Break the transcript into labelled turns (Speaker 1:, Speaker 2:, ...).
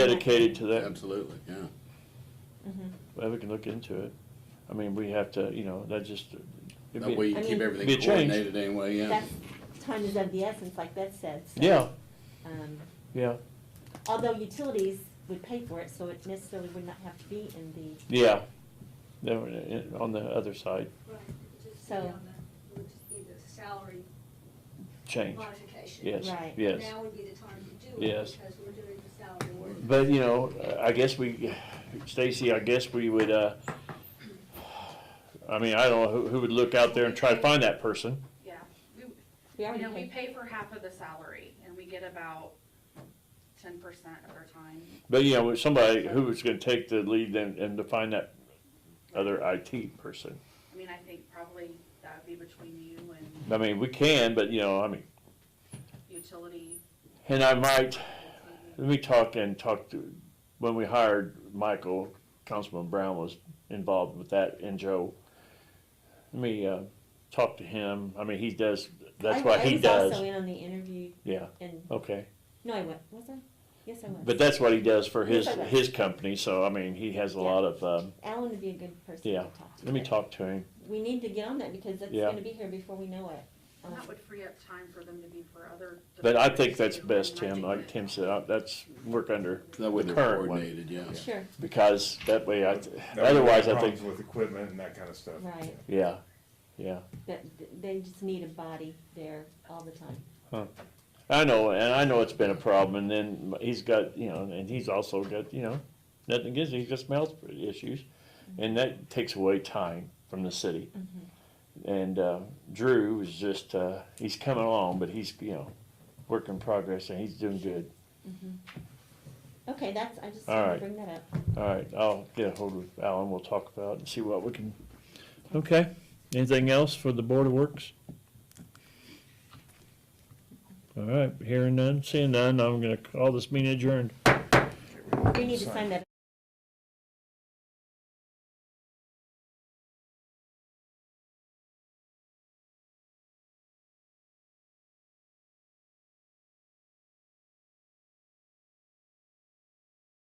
Speaker 1: dedicated to that,
Speaker 2: Absolutely, yeah.
Speaker 3: Mm-hmm.
Speaker 1: well, we can look into it. I mean, we have to, you know, that just, it'd
Speaker 2: That
Speaker 1: be-
Speaker 2: way you
Speaker 3: I
Speaker 2: keep
Speaker 3: mean-
Speaker 2: everything
Speaker 1: Be a change.
Speaker 2: coordinated anyway, yeah.
Speaker 3: That's, time is of the essence, like that said. so,
Speaker 1: yeah,
Speaker 3: um,
Speaker 1: yeah,
Speaker 3: Although utilities would pay for it, so it necessarily would not have to be in the,
Speaker 1: yeah. Then we're in- on the other side,
Speaker 4: Right, it would just be
Speaker 3: So-
Speaker 4: on the, it would just be the salary
Speaker 1: change,
Speaker 4: modification.
Speaker 1: yes,
Speaker 3: Right.
Speaker 1: yes.
Speaker 4: Now would be the time to do it,
Speaker 1: Yes.
Speaker 4: because we're doing the salary work.
Speaker 1: But, you know, I guess we, Stacy, I guess we would, uh, I mean, I don't know, who, who would look out there and try to find that person?
Speaker 5: Yeah, we,
Speaker 3: we
Speaker 5: you
Speaker 3: already
Speaker 5: know, we
Speaker 3: paid.
Speaker 5: pay for half of the salary and we get about ten percent of their time.
Speaker 1: But, you know, with somebody who was gonna take the lead and, and to find that other IT person.
Speaker 5: I mean, I think probably that would be between you and
Speaker 1: I mean, we can, but, you know, I mean,
Speaker 5: utility.
Speaker 1: and I might, Let me talk and talk to, when we hired Michael, Councilman Brown was involved with that and Joe. Let me, uh, talk to him. I mean, he does, that's
Speaker 3: I-
Speaker 1: what he
Speaker 3: I was also
Speaker 1: does.
Speaker 3: in on the interview
Speaker 1: Yeah,
Speaker 3: and,
Speaker 1: okay.
Speaker 3: no, I was, was I? Yes, I was.
Speaker 1: But that's what he does for his,
Speaker 3: Yes, I know.
Speaker 1: his company, so I mean, he has a lot of, um,
Speaker 3: Alan would be a good person to
Speaker 1: Yeah.
Speaker 3: talk to.
Speaker 1: let me
Speaker 3: but
Speaker 1: talk to him.
Speaker 3: We need to get on that because it's
Speaker 1: Yeah.
Speaker 3: gonna be here before we know it.
Speaker 5: And that
Speaker 3: Um,
Speaker 5: would free up time for them to be for other.
Speaker 1: But I think that's
Speaker 5: departments
Speaker 1: best,
Speaker 5: too, and
Speaker 1: Tim,
Speaker 5: I
Speaker 1: like
Speaker 5: think
Speaker 1: Tim said, I- that's work under,
Speaker 2: That way
Speaker 1: The
Speaker 2: they're
Speaker 1: current one.
Speaker 2: coordinated, yeah.
Speaker 3: Sure,
Speaker 1: because that way I,
Speaker 6: That way we
Speaker 1: otherwise
Speaker 6: have
Speaker 1: I think,
Speaker 6: Problems with equipment and that kind of stuff.
Speaker 3: Right.
Speaker 1: yeah, yeah.
Speaker 3: that, they just need a body there all the time.
Speaker 1: I know, and I know it's been a problem, and then he's got, you know, and he's also got, you know, nothing against him, he's got some health issues, and that takes away time from the city. And uh, Drew is just, uh, he's coming along, but he's, you know, work in progress, and he's doing good.
Speaker 3: Okay, that's, I just
Speaker 1: All
Speaker 3: wanted to
Speaker 1: right.
Speaker 3: bring that up.
Speaker 1: All right, I'll get a hold of Alan, we'll talk about it and see what we can, okay? Anything else for the Board of Works? All right, hearing none, seeing none, I'm gonna call this meeting adjourned.
Speaker 3: We need to sign that